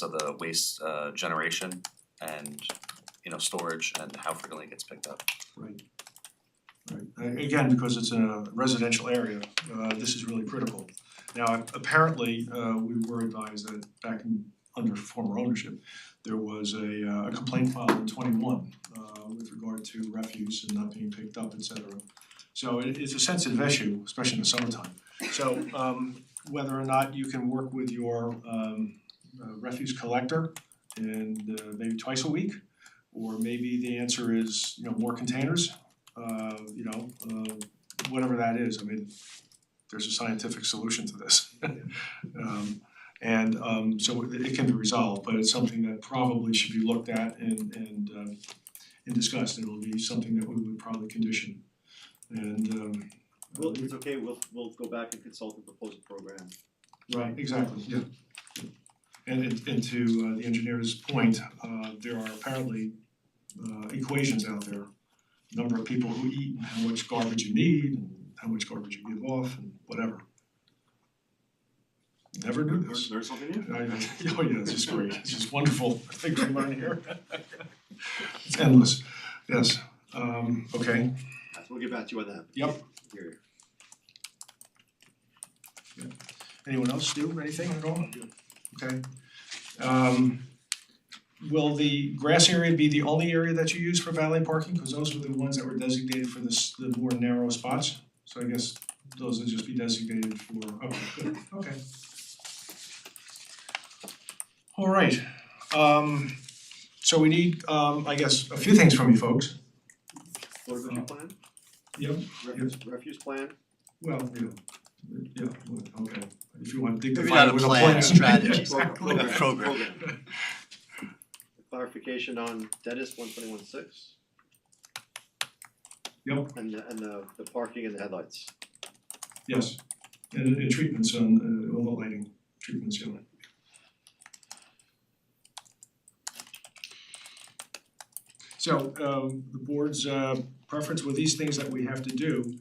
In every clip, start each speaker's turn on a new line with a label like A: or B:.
A: to the waste uh generation and, you know, storage and how frequently it gets picked up.
B: Right. Right, A- again, because it's in a residential area, uh this is really critical. Now, apparently, uh we were advised that back in under former ownership, there was a uh, a complaint filed in twenty one uh with regard to refuse and not being picked up, et cetera. So it it's a sensitive issue, especially in the summertime. So um whether or not you can work with your um uh, refuse collector and uh maybe twice a week or maybe the answer is, you know, more containers, uh, you know, uh, whatever that is, I mean, there's a scientific solution to this. Um, and um, so it it can be resolved, but it's something that probably should be looked at and and uh and discussed, it'll be something that we would probably condition. And um,
C: Well, it's okay, we'll we'll go back and consult the proposed program.
B: right, exactly, yeah. And it and to uh the engineer's point, uh there are apparently uh equations out there. Number of people who eat, and how much garbage you need, and how much garbage you give off and whatever. Never knew
C: Learn
B: this.
C: learn something new?
B: I I- oh yeah, this is great, this is wonderful, things we learn here. It's endless, yes, um okay,
C: So we'll get back to you on that.
B: Yep.
C: Here.
B: anyone else do anything at all? Okay. Um will the grass area be the only area that you use for valet parking? Cause those were the ones that were designated for this the more narrow spots. So I guess those would just be designated for, okay, good, okay. All right, um so we need um I guess a few things from you folks.
C: Florida Vision Plan,
B: Yep.
C: refuse refuse plan,
B: Well, yeah, yeah, okay, if you want to
D: Maybe
B: dignify
D: not
B: it
D: a
B: with a plan.
D: plan, a strategy.
C: program,
B: Exactly.
C: program,
D: Program.
C: program. Clarification on Dennis one twenty one six.
B: Yep.
C: And the and the the parking and the headlights.
B: Yes, and and treatments on uh all the lighting treatments, yeah. So um the board's uh preference with these things that we have to do,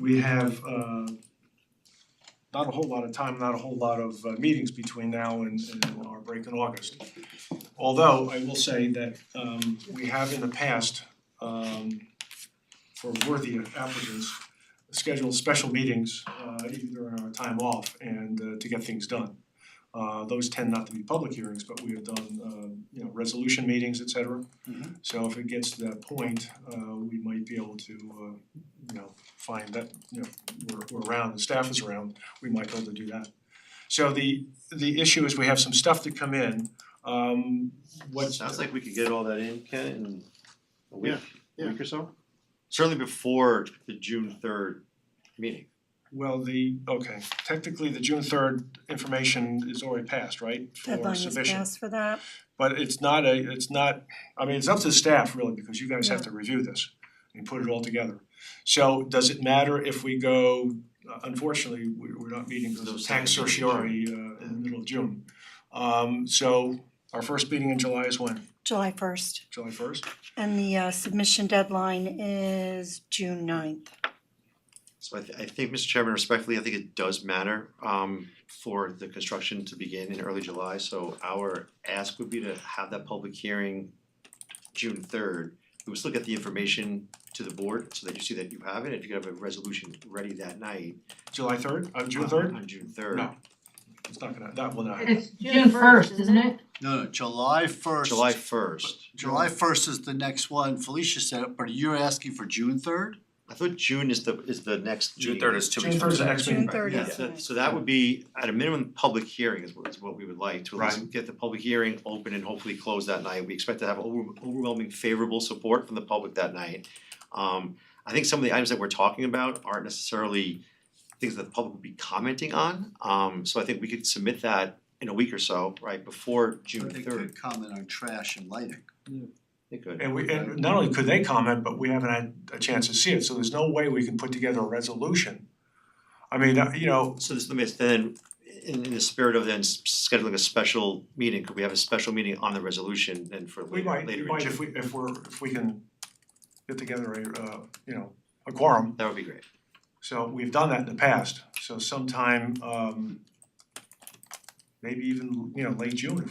B: we have uh not a whole lot of time, not a whole lot of uh meetings between now and and our break in August. Although I will say that um we have in the past um for worthy applicants, schedule special meetings uh even during our time off and uh to get things done. Uh those tend not to be public hearings, but we have done uh you know, resolution meetings, et cetera.
C: Mhm.
B: So if it gets to that point, uh we might be able to uh you know, find that, you know, we're we're around, the staff is around, we might be able to do that. So the the issue is we have some stuff to come in, um what's
C: Sounds like we could get all that in, Ken, in a week,
E: yeah.
C: week or so? Certainly before the June third meeting.
B: Well, the, okay, technically the June third information is already passed, right, for
E: Deadline is
B: submission?
E: passed for that.
B: But it's not a, it's not, I mean, it's up to the staff really, because you guys have to review this and put it all together. So does it matter if we go, uh, unfortunately, we we're not meeting because
C: No
B: of tax
C: second
B: certiorari uh in the middle of June. Um so our first meeting in July is when,
E: July first,
B: July first?
E: and the uh, submission deadline is June 9th.
C: So I th- I think, Mr. Chairman, respectfully, I think it does matter um for the construction to begin in early July, so our ask would be to have that public hearing June third. We would still get the information to the board so that you see that you have it, if you could have a resolution ready that night.
B: July third, uh June
C: on-
B: third?
C: On June third.
B: No. It's not gonna, that will not happen.
F: It's June first, isn't it?
D: No, no, July first.
C: July first.
D: July first is the next one. Felicia said it, but you're asking for June third?
C: I thought June is the is the next
A: June
C: meeting.
A: third is two weeks.
B: June
A: from
B: third is the
A: today.
B: next meeting.
E: June
B: right?
C: Yeah,
E: thirtieth.
C: so so that would be at a minimum, public hearing is what is what we would like to at least get the public hearing open and hopefully closed that night. We expect to have over- overwhelming favorable support from the public that night. Um I think some of the items that we're talking about aren't necessarily things that the public would be commenting on. Um so I think we could submit that in a week or so, right, before June
D: But they
C: third.
D: could comment on trash and lighting.
C: They could.
B: And we, and not only could they comment, but we haven't had a chance to see it, so there's no way we can put together a resolution. I mean, uh, you know,
C: So this limits then, in in the spirit of then s- scheduling a special meeting, could we have a special meeting on the resolution then for
B: we
C: later later in
B: might,
C: June?
B: we might if we, if we're, if we can get together a, uh, you know, a quorum.
C: That would be great.
B: So we've done that in the past, so sometime, um, maybe even, you know, late June, if